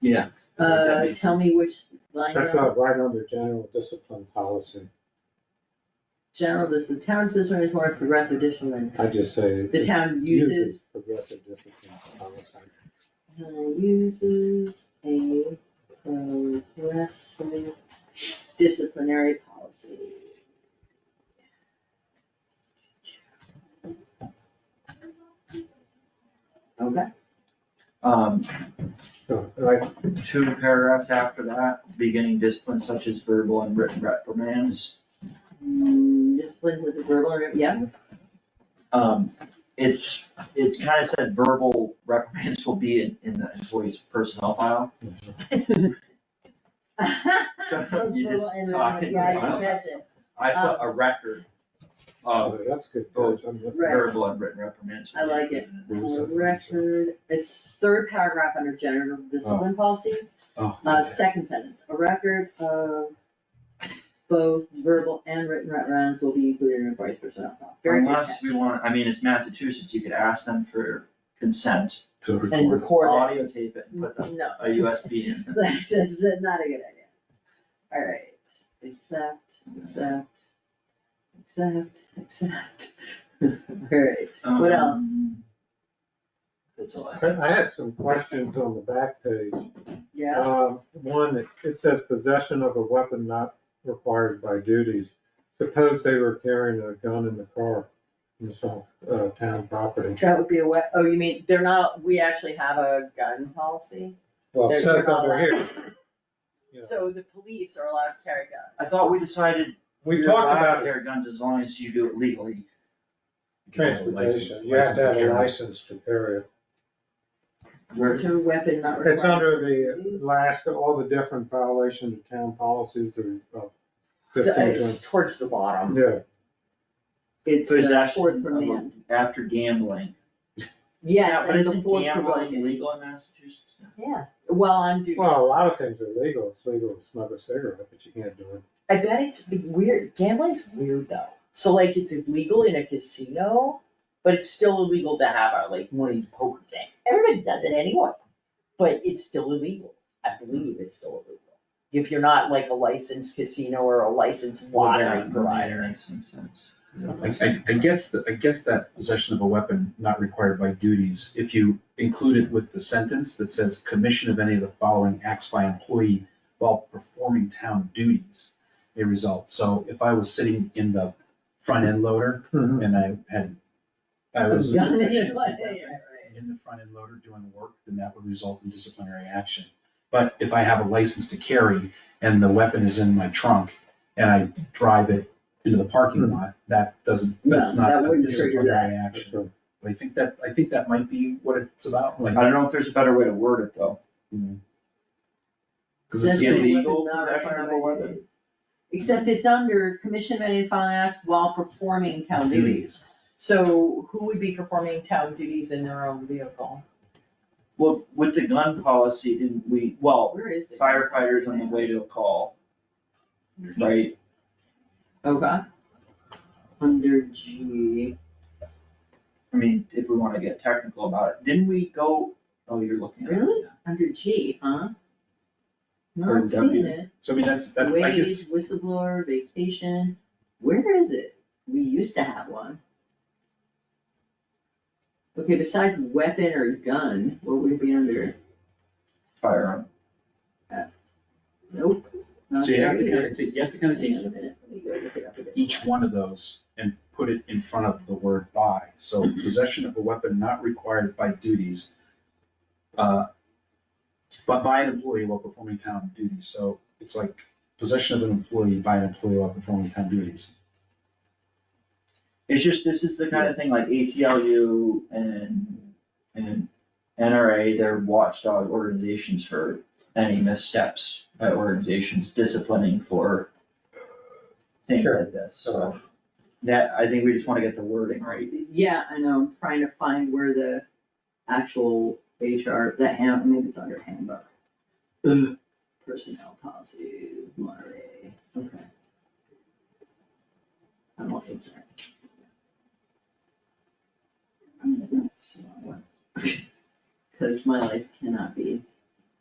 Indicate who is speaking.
Speaker 1: Yeah. I think that
Speaker 2: Uh,
Speaker 1: makes-
Speaker 2: tell me which line
Speaker 3: That's
Speaker 2: item.
Speaker 3: not right under general discipline policy.
Speaker 2: general, this, the town system is more progressive discipline than
Speaker 3: I just say.
Speaker 2: the town uses,
Speaker 3: Progressive discipline policy.
Speaker 2: uh, uses a progressive disciplinary policy. Okay.
Speaker 1: Um,
Speaker 3: So, like,
Speaker 1: two paragraphs after that, beginning discipline such as verbal and written reprimands.
Speaker 2: Mm, Discipline was a verbal, rep- yeah,
Speaker 1: Um, it's, it kind of said verbal reprimands will be in, in the employee's personnel file. So you just talked into the
Speaker 2: uh, Yeah, you um,
Speaker 1: file.
Speaker 2: catch it.
Speaker 1: I put a record of
Speaker 3: oh, that's good.
Speaker 1: Oh,
Speaker 3: That's- I'm just-
Speaker 2: Right.
Speaker 1: verbal and written reprimands.
Speaker 2: I like it.
Speaker 3: Rules
Speaker 2: Uh,
Speaker 3: of-
Speaker 2: Record, it's third paragraph under general discipline policy,
Speaker 3: Oh,
Speaker 2: uh, second sentence, a record of both verbal and written reprimands will be included in the vice personnel file. Very good
Speaker 1: Unless we want, I mean, it's Massachusetts, you could ask them for consent,
Speaker 4: to
Speaker 2: catch. And
Speaker 4: record.
Speaker 2: record
Speaker 1: audio tape it and put the,
Speaker 2: it, no,
Speaker 1: a USB in.
Speaker 2: that's just not a good idea. Alright, except, except, except, except, alright, What else?
Speaker 1: Um, That's all I have.
Speaker 3: I I had some questions on the back page.
Speaker 2: yeah,
Speaker 3: Uh, One, it- it says possession of a weapon not required by duties. Suppose they were carrying a gun in the car, in some uh, town property.
Speaker 2: that would be a we, oh, you mean, they're not, we actually have a gun policy?
Speaker 3: Well, it
Speaker 2: They're- they're
Speaker 3: says
Speaker 2: not
Speaker 3: over
Speaker 2: allowed.
Speaker 3: here, Yeah.
Speaker 2: So the police are allowed to carry guns.
Speaker 1: I thought we decided.
Speaker 3: we talked about
Speaker 1: Carry guns as long as you do it legally.
Speaker 3: transportation, you have to have a license to carry it.
Speaker 1: Where-
Speaker 2: To weapon not required.
Speaker 3: It's under the last, of all the different violations of town policies, the uh, fifteen,
Speaker 2: It's towards the bottom.
Speaker 3: yeah.
Speaker 2: It's uh, fourth
Speaker 1: Possession
Speaker 2: for
Speaker 1: of a-
Speaker 2: man.
Speaker 1: after gambling. Yeah,
Speaker 2: Yes,
Speaker 1: but
Speaker 2: and the
Speaker 1: isn't
Speaker 2: fourth for
Speaker 1: gambling
Speaker 2: woman.
Speaker 1: illegal in Massachusetts? now?
Speaker 2: Yeah, well, I'm, do-
Speaker 3: Well, a lot of things are legal, it's legal to smoke a cigarette, but you can't do it.
Speaker 5: I bet it's the weird, gambling's weird though. So like it's illegal in a casino, but it's still illegal to have a like money poker game. Everybody does it anyway, but it's still illegal. I believe it's still illegal. If you're not like a licensed casino or a licensed
Speaker 1: Well,
Speaker 5: lottery
Speaker 1: that
Speaker 5: provider.
Speaker 1: Makes some sense.
Speaker 4: I, I, I guess, that- I guess that possession of a weapon not required by duties, if you include it with the sentence that says commission of any of the following acts by employee while performing town duties may result. So if I was sitting in the front end loader and I had, I was. in
Speaker 2: Gun in
Speaker 4: possession of
Speaker 2: your
Speaker 4: a
Speaker 2: butt, yeah,
Speaker 4: weapon
Speaker 2: right.
Speaker 4: In the front end loader doing work, then that would result in disciplinary action. But if I have a license to carry and the weapon is in my trunk and I drive it into the parking lot, that doesn't,
Speaker 2: Hmm. No,
Speaker 4: that's not
Speaker 2: that
Speaker 4: a
Speaker 2: wouldn't trigger
Speaker 4: disciplinary action.
Speaker 3: uh,
Speaker 4: But I think that, I think that might be what it's about,
Speaker 1: I
Speaker 4: like,
Speaker 1: don't know if there's a better way to word it though.
Speaker 4: because it's
Speaker 1: That's
Speaker 4: still,
Speaker 1: it.
Speaker 4: it
Speaker 1: illegal
Speaker 2: Weapon not
Speaker 1: possession
Speaker 2: required
Speaker 1: of a
Speaker 2: by
Speaker 1: weapon.
Speaker 2: duties. Except it's under commission of any following acts while performing town duties.
Speaker 4: is.
Speaker 5: So who would be performing town duties in their own vehicle?
Speaker 1: Well, with the gun policy, didn't we, well,
Speaker 2: Where is it?
Speaker 1: firefighters on the way to a call. Right,
Speaker 2: Okay. Under G.
Speaker 1: I mean, if we wanna get technical about it, didn't we go, oh, you're looking at it.
Speaker 2: Really? Under G, huh?
Speaker 1: Or
Speaker 2: Not
Speaker 1: W.
Speaker 2: seeing it.
Speaker 4: So I mean, that's, that, I guess,
Speaker 2: Wage, whistleblower, vacation, where is it? We used to have one. Okay, besides weapon or gun, what would it be under?
Speaker 1: Firearm.
Speaker 2: Nope. not
Speaker 4: so you have
Speaker 2: there
Speaker 4: to kind
Speaker 2: either.
Speaker 4: of, you have to kind of
Speaker 2: Hang
Speaker 4: take
Speaker 2: on a minute, let me go look it up again.
Speaker 4: each one of those and put it in front of the word by. So possession of a weapon not required by duties, uh, but by an employee while performing town duties. So it's like possession of an employee by an employee while performing town duties.
Speaker 1: It's just, this is the kind of thing like ACLU and, and NRA, they're watchdog organizations for any missteps by organizations disciplining for things like this, so. That, I think we just wanna get the wording right.
Speaker 2: Yeah, I know, I'm trying to find where the actual HR, that hand, maybe it's under handbook. Personnel policy, Monterey, okay. I'm not HR. I'm gonna go see that one. Cause my life cannot be